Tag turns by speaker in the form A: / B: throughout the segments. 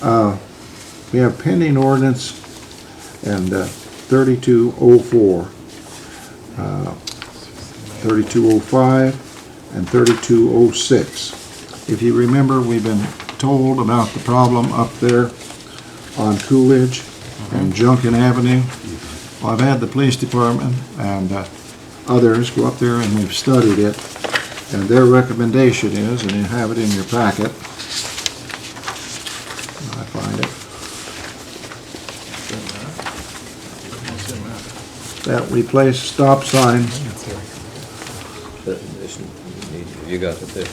A: Uh, We have pending ordinance and uh, 3204, uh, 3205, and 3206. If you remember, we've been told about the problem up there on Coolidge and Junkin Avenue. Well, I've had the police department and uh, others go up there and we've studied it. And their recommendation is, and you have it in your packet. I find it. That we place stop sign,
B: That addition- you need- You got it there,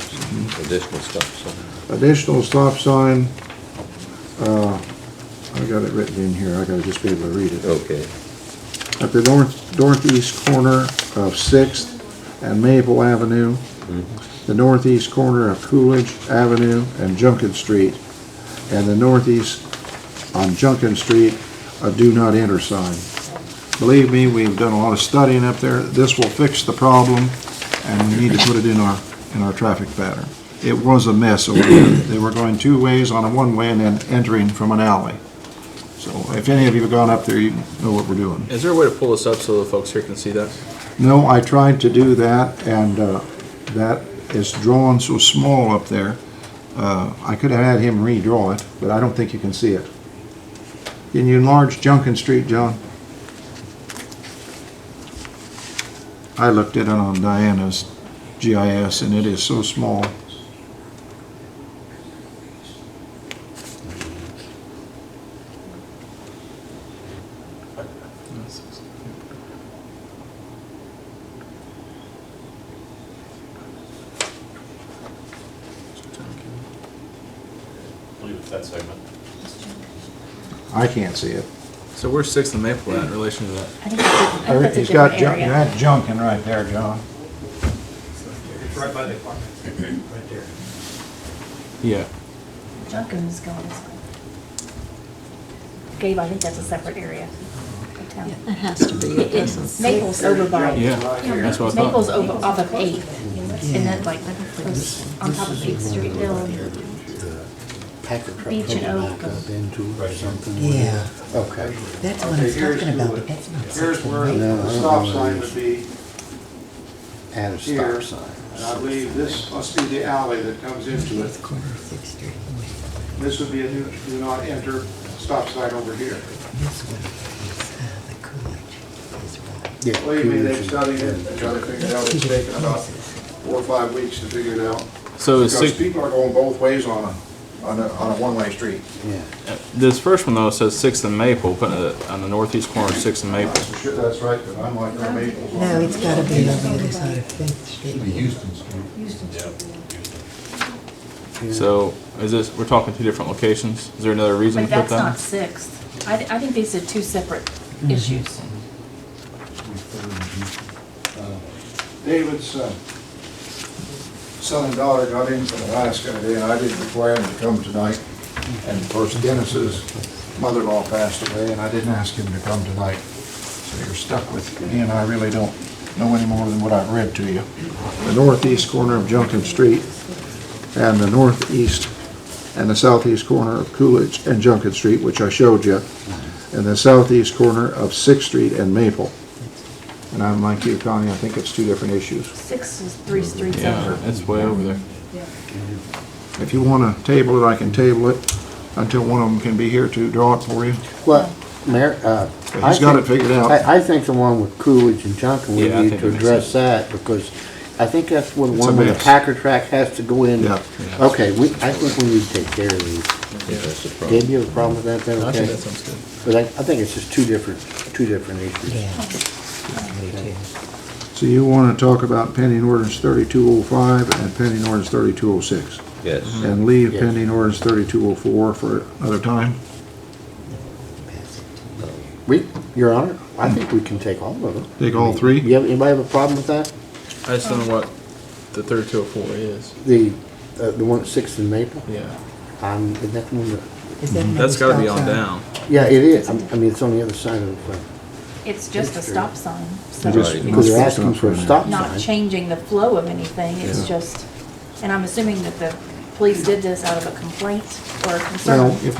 B: additional stuff, so.
A: additional stop sign. uh, I got it written in here, I gotta just be able to read it.
B: Okay.
A: at the north, northeast corner of Sixth and Maple Avenue, the northeast corner of Coolidge Avenue and Junkin Street, and the northeast on Junkin Street, a do not enter sign. Believe me, we've done a lot of studying up there. This will fix the problem, and we need to put it in our, in our traffic pattern. It was a mess over there. They were going two ways on a one-way and then entering from an alley. So if any of you have gone up there, you know what we're doing.
C: Is there a way to pull this up so the folks here can see that?
A: No, I tried to do that, and uh, that is drawn so small up there. Uh, I could have had him redraw it, but I don't think you can see it. Can you enlarge Junkin Street, John? I looked at it on Diana's GIS, and it is so small.
D: believe it's that segment.
A: I can't see it.
C: So where's Sixth and Maple at in relation to that?
E: I think it's a- I think that's a
A: He's got
E: different
A: Jun- You
E: area.
A: had Junkin right there, John.
F: Right by the apartment, right there.
C: Yeah.
E: Junkins going this way. Gabe, I think that's a separate area of town.
G: It has to be, it doesn't.
E: Maple's over by.
C: Yeah, that's what I thought.
E: Maple's over, off of Eighth, and then like, goes on top of Eighth Street Hill. and
H: packer truck
E: Beach and
H: coming
E: Oak.
H: back up into or something.
F: Yeah,
H: Okay.
F: that's what I was
I: here's
F: talking about,
I: who-
F: but that's not
I: Here's
F: something.
I: where the stop sign would be,
H: Add a
I: Here.
H: stop sign.
I: and I believe this must be the alley that comes into it.
F: Eighth corner of Sixth Street, wait,
I: This would be a do do not enter stop sign over here.
F: this one is, uh, the Coolidge, is right.
H: Yeah,
I: Believe me,
H: Coolidge
I: they've
H: and-
I: studied it, and tried to figure it out, it's taken about four or five weeks to figure it out.
C: So is
I: Because
C: six,
I: people are going both ways on a, on a, on a one-way street.
H: Yeah.
C: this first one though says Sixth and Maple, putting it on the northeast corner of Sixth and Maple.
I: That's sure, that's right, but I'm like, no, Maple's on.
F: No, it's gotta be on the other side of Fifth Street.
C: So is this, we're talking two different locations? Is there another reason
E: But
C: to put
E: that's not
C: that?
E: Sixth. I, I think these are two separate
F: Mm-hmm.
E: issues.
I: David's uh, son and daughter got in from Alaska today, and I didn't require him to come tonight. And of course, Dennis's mother-in-law passed away, and I didn't ask him to come tonight. So you're stuck with me, and I really don't know any more than what I've read to you.
A: the northeast corner of Junkin Street, and the northeast and the southeast corner of Coolidge and Junkin Street, which I showed you, and the southeast corner of Sixth Street and Maple. And I'm like you, Connie, I think it's two different issues.
E: Six is three streets
C: Yeah,
E: over.
C: it's way over there.
A: If you want to table it, I can table it until one of them can be here to draw it for you.
H: Well, Mayor, uh.
A: But
H: I
A: He's got it
H: think-
A: figured out.
H: I, I think the one with Coolidge and Junkin, we
C: Yeah, I
H: need
C: think
H: to
C: it makes
H: address that because I think that's one,
A: It's a
H: one where the
A: mess.
H: packer track has to go in.
A: Yeah.
C: Yeah.
H: Okay, we, I think we need to take care of these.
B: That's the problem.
H: Dave, you have a problem with that then?
C: I
H: Okay.
C: think that sounds good.
H: But I, I think it's just two different, two different issues.
F: Yeah. Me too.
A: So you want to talk about pending ordinance 3205 and pending ordinance 3206?
B: Mm-hmm. Yes.
A: And leave
H: Yes.
A: pending ordinance 3204 for another time?
I: Oh.
H: We, Your Honor, I think we can take all of them.
A: Take all three?
H: You have, anybody have a problem with that?
C: I just don't know what the third two oh four is.
H: The, uh, the one at Sixth and Maple?
C: Yeah.
H: Um, isn't that the one that,
F: Is that another
C: That's gotta be
F: stop
C: on
F: sign?
C: down.
H: yeah, it is. I'm- I mean, it's on the other side of the,
E: It's just a stop sign, so.
A: It is-
E: it's-
H: because they're asking for a stop
E: not
H: sign.
E: changing the flow of anything, it's just, and I'm assuming that the police did this out of a complaint or a concern.
A: Well, if